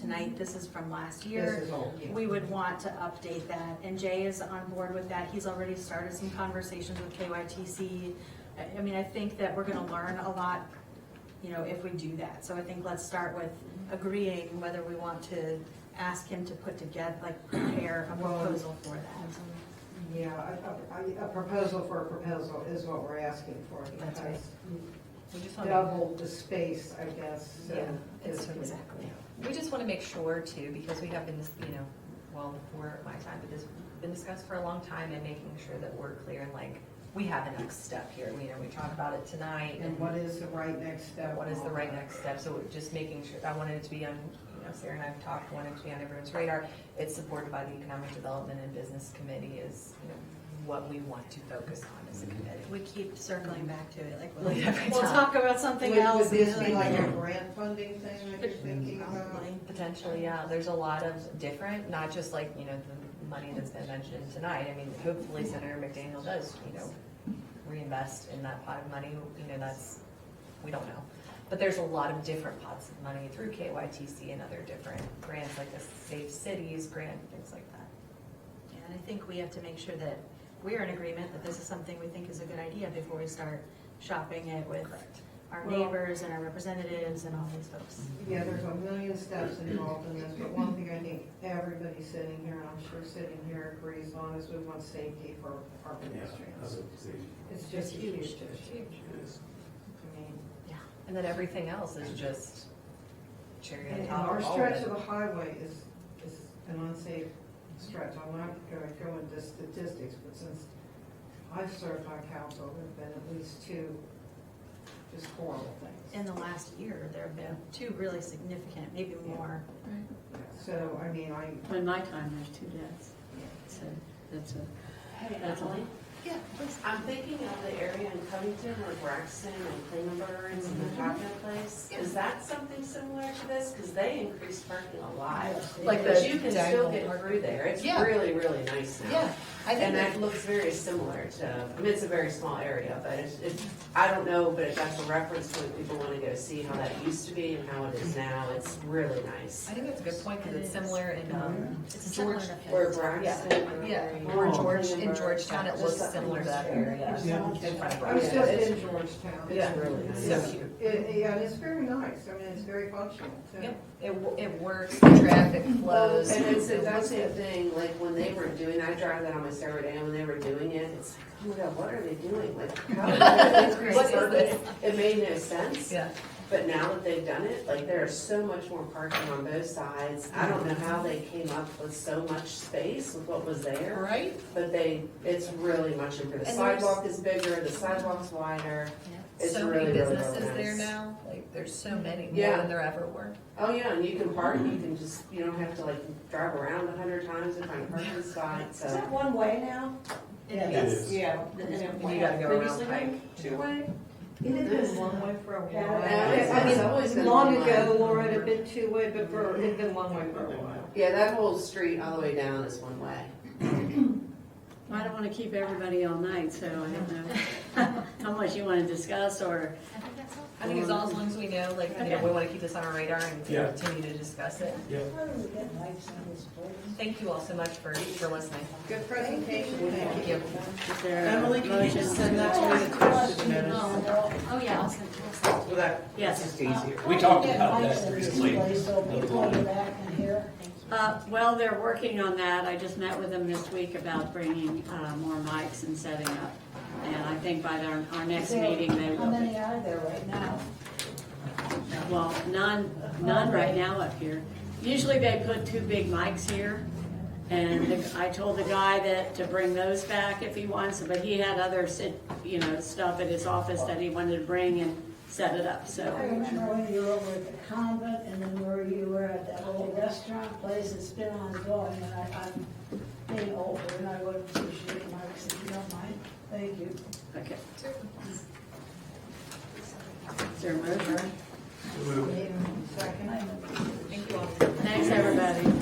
tonight, this is from last This year. is old, yeah. We would want to update that, and Jay is on board with that, he's already started some conversations with KYTC. I, I mean, I think that we're gonna learn a lot, you know, if we do that, so I think let's start with agreeing whether we want to ask him to put together, like, prepare a Well- proposal for that. Yeah, a, a- a proposal for a proposal is what we're asking for. That's right. because We just want to, Double the space, I guess, so. Yeah, it's- it's- exactly. we just want to make sure too, because we have been, dis- you know, well, before my time, but this has been discussed for a long time and making sure that we're clear and like, we have a next step here. We, you know, we talked about it tonight And what is the right next step? what is the right next step? So just making sure, I wanted it to be on, you know, Sarah and I've talked, wanted it to be on everyone's radar. It's supported by the Economic Development and Business Committee is, you know, what we want to focus on as a committee. We keep circling back to it, like, Like every we'll time. talk about something else. Would this and be like a then- grant funding thing that you're thinking about? Probably. Potentially, yeah, there's a lot of different, not just like, you know, the money that's been mentioned tonight. I mean, hopefully Senator McDaniel does, you know, reinvest in that pot of money, you know, that's, we don't know. But there's a lot of different pots of money through KYTC and other different grants, like the Safe Cities grant, things like that. Yeah, And I think we have to make sure that we're in agreement that this is something we think is a good idea before we start shopping it with our Well- neighbors and our representatives and all these folks. Mm-hmm. Yeah, there's a million steps involved in this, but one thing I think everybody sitting here, and I'm sure sitting here agrees on, is we want safety for our pedestrians. It's just a huge issue. I mean, And then everything else is just cherry on And top our of all of stretch of it. the highway is, is an unsafe stretch. I'm not gonna go into statistics, but since I've served on council, there've been at least two just horrible things. In the last year, there have been two really significant, maybe more. So, I mean, I, In my time, there's two deaths, so that's a, Hey, That's all. Emily. Yeah, I'm thinking of the area in Covington where Braxton and Klingenberg and the Joplin place. Is that something similar to this? Because they increased parking a lot. Like But the you can diagonal still get park. through there. It's Yeah. really, really nice now. Yeah, I think And that- that looks very similar to, I mean, it's a very small area, but it's, it's, I don't know, but that's a reference point. People want to go see how that used to be and how it is now. It's really nice. I think that's a good point, because It it's is. similar in, um, It's similar George- to- Or Braxton. or- yeah, or or George, in Klingenberg. Georgetown, it looks Just similar to that area. area. In front of I was Rockford. just in Georgetown. Yeah. It's really nice. So cute. It, yeah, and it's very nice. I mean, it's very functional too. Yep, it, wo- it works, the traffic flows. Oh, And it's it that looks same good. thing, like when they were doing, I drive that on my Saturday, and when they were doing it, it's like, oh my god, what are they doing? Like, how did they What increase is parking? this? It made no sense, Yeah, but now that they've done it, like, there is so much more parking on both sides. I don't know how they came up with so much space with what was there, right? but they, it's really much improved. The And there's- sidewalk is bigger, the sidewalk's wider, it's So really, many really, really businesses there nice. now, like, there's so many, more Yeah. than there ever were. Oh, yeah, and you can park, you can just, you don't have to like drive around a hundred times to find a parking spot, so. one way now? It It is. is. Yeah. And you gotta go around Previously, Pike, too. Two-way? It had been one way for a while. Yeah, it's- I it's always mean, been long one ago, way. Laura, it had been two way, but for, it had been one way for a while. Yeah, that whole street all the way down is one way. I don't wanna keep everybody all night, so I don't know how much you wanna discuss or, I think that's all. I think Mm-hmm. as long as, long as we know, like, you know, we wanna keep this on our radar and Yeah. continue to discuss it. Yeah. Thank you all so much for, for listening. Good presentation, thank you. is there a motion? send that to the question Oh, yeah, I'll send, we'll send. Yes. We talked about that recently. Uh, well, they're working on that. I just met with them this week about bringing, uh, more mics and setting up. And I think by our, our next meeting, they will. How many are there right now? Well, none, none right now up here. Usually they put two big mics here, and the- I told the guy that, to bring those back if he wants, but he had other sit, you know, stuff at his office that he wanted to bring and set it up, I so. remember when you were over at the convent and then where you were at that little restaurant place that's been ongoing and I, I'm being older and I would appreciate Mike's if you don't mind. Thank you. Okay. Is there a motion? Second. Thank you all. Thanks, everybody.